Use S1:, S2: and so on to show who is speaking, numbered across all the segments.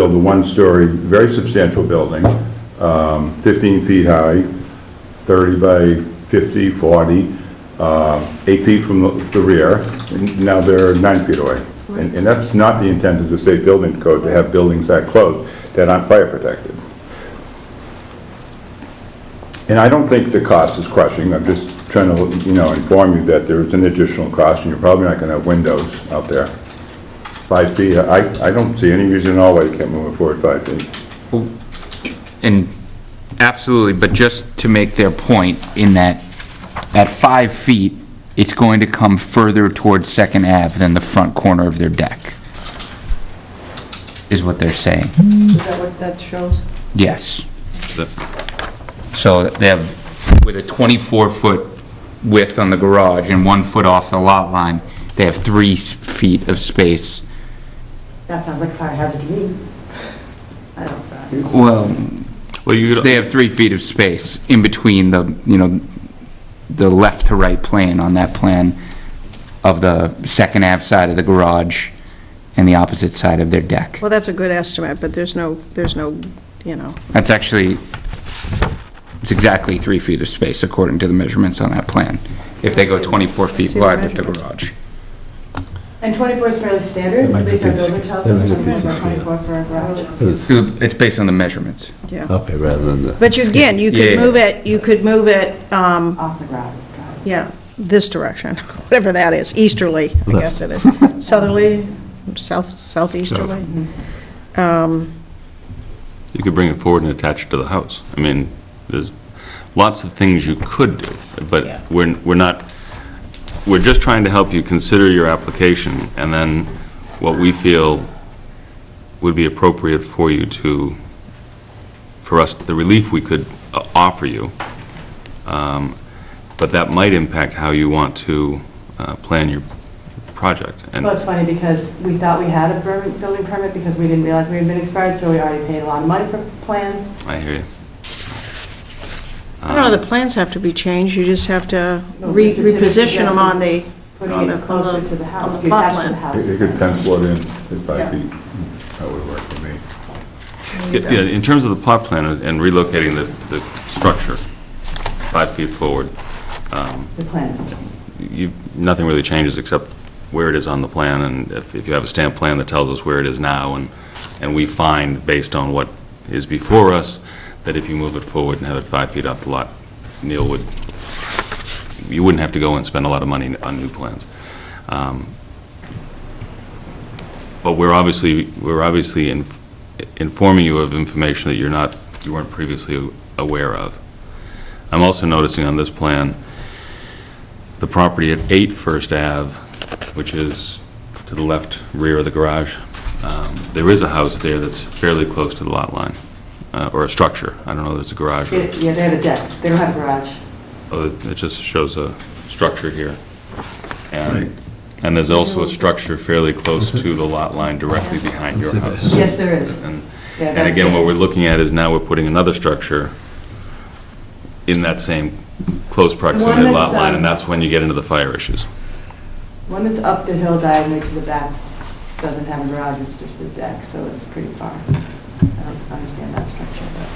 S1: build a one-story, very substantial building, um, 15 feet high, 30 by 50, 40, uh, eight feet from the- the rear, and now they're nine feet away. And and that's not the intent of the state building code, to have buildings that close that aren't fire protected. And I don't think the cost is crushing, I'm just trying to, you know, inform you that there is an additional cost, and you're probably not gonna have windows out there. Five feet, I, I don't see any reason at all why you can't move it forward five feet.
S2: And absolutely, but just to make their point, in that, at five feet, it's going to come further towards Second Ave than the front corner of their deck, is what they're saying.
S3: Is that what that shows?
S2: Yes. So they have, with a 24-foot width on the garage and one foot off the lot line, they have three s- feet of space.
S4: That sounds like a fire hazard to me. I don't, know.
S2: Well,
S5: Well, you could,
S2: they have three feet of space in between the, you know, the left to right plane on that plan of the second half side of the garage and the opposite side of their deck.
S3: Well, that's a good estimate, but there's no, there's no, you know,
S2: That's actually, it's exactly three feet of space according to the measurements on that plan, if they go 24 feet
S3: See the
S2: wide with the
S3: measurement.
S2: garage.
S4: and 24 is fairly standard,
S6: might
S4: at
S6: be
S4: least our
S6: piece-
S4: builder tells
S6: that
S4: us
S6: might
S4: we're
S6: be
S4: looking
S6: pieces,
S4: for
S6: yeah.
S4: 24 for a garage.
S6: It's
S2: It's based on the measurements.
S3: yeah.
S6: up here rather than the,
S3: But you, again, you
S2: Yeah.
S3: could move it, you could move it, um,
S4: Off the garage.
S3: yeah, this direction, whatever that is, easterly, I
S6: Left.
S3: guess it is. Southerly, south, southeasterly.
S5: you could bring it forward and attach it to the house. I mean, there's lots of things you could do,
S3: Yeah.
S5: but we're, we're not, we're just trying to help you consider your application, and then what we feel would be appropriate for you to, for us, the relief we could uh, offer you. Um, But that might impact how you want to uh, plan your project. And
S4: Well, it's funny because we thought we had a permit- building permit because we didn't realize we had been expired, so we already paid a lot of money for plans.
S5: I hear you.
S3: I don't know, the plans have to be changed, you just have to
S4: No,
S3: re-
S4: Mr. Tibbetts
S3: reposition them on the, on
S4: Putting
S3: the,
S4: it closer to the house,
S3: on
S4: to
S3: the plot
S4: attach to the
S3: plan.
S4: house.
S1: They they could pencil it in at
S3: Yeah.
S1: five feet, that would work for me.
S5: Yeah, yeah, in terms of the plot plan and relocating the, the structure five feet forward, um,
S4: The plans.
S5: you, nothing really changes except where it is on the plan, and if, if you have a stamp plan that tells us where it is now, and, and we find, based on what is before us, that if you move it forward and have it five feet off the lot, Neil would, you wouldn't have to go and spend a lot of money on new plans. Um, But we're obviously, we're obviously in- informing you of information that you're not, you weren't previously aware of. I'm also noticing on this plan, the property at 8 First Ave, which is to the left rear of the garage. Um, There is a house there that's fairly close to the lot line, uh, or a structure. I don't know if it's a garage or,
S4: Yeah, yeah, they have a deck, they don't have a garage.
S5: oh, it just shows a structure here. And, and there's also a structure fairly close to the lot line directly behind your house.
S4: Yes, there is.
S5: And
S4: Yeah,
S5: and
S4: that's-
S5: again, what we're looking at is now we're putting another structure in that same close proximity to the
S4: that's,
S5: lot line, and
S4: um,
S5: that's when you get into the fire issues.
S4: One that's up the hill diagonally to the back doesn't have a garage, it's just a deck, so it's pretty far. I don't understand that structure, but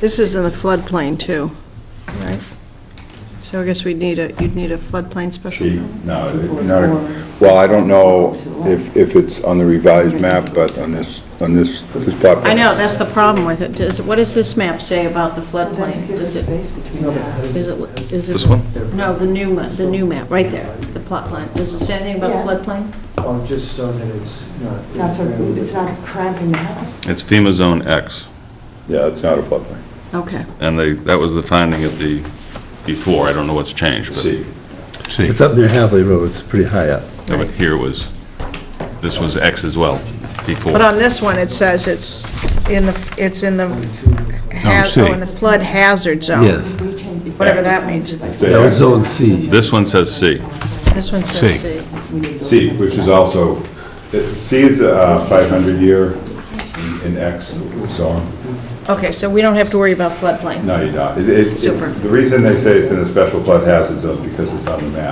S3: This is in the floodplain too, right? So I guess we'd need a, you'd need a floodplain special
S1: She,
S3: permit.
S1: no, it- not, a- well, I don't know if, if it's on the revised map, but on this, on this, this plot.
S3: I know, that's the problem with it. Does- What does this map say about the
S4: that
S3: floodplain?
S4: just gives
S3: Does
S4: us
S3: it,
S4: space between the houses.
S3: is it, is it?
S5: This one?
S3: No, the new, ma- the new map, right there, the plot line. Does it say anything about
S4: Yeah.
S3: floodplain?
S6: Oh, just so that it's not.
S4: Not so, it's not cramping the house.
S5: It's FEMA Zone X.
S1: Yeah, it's not a floodplain.
S3: Okay.
S5: And they, that was the finding of the, before, I don't know what's changed, but
S1: See,
S6: It's up near Hadley Road, it's pretty high up.
S5: Yeah, but here was, this was X as well, before.
S3: But on this one, it says it's in the, it's in the, haz- oh, in the flood hazard zone.
S6: Yes.
S4: We changed before.
S3: Whatever that means.
S6: That was Zone C.
S5: This one says C.
S3: This one says C.
S1: C, which is also, uh, C is a 500-year in X, so on.
S3: Okay, so we don't have to worry about floodplain.
S1: No, you don't. It- it's- it's-
S3: Super.
S1: The reason they say it's in a special flood hazard zone is because it's on the map.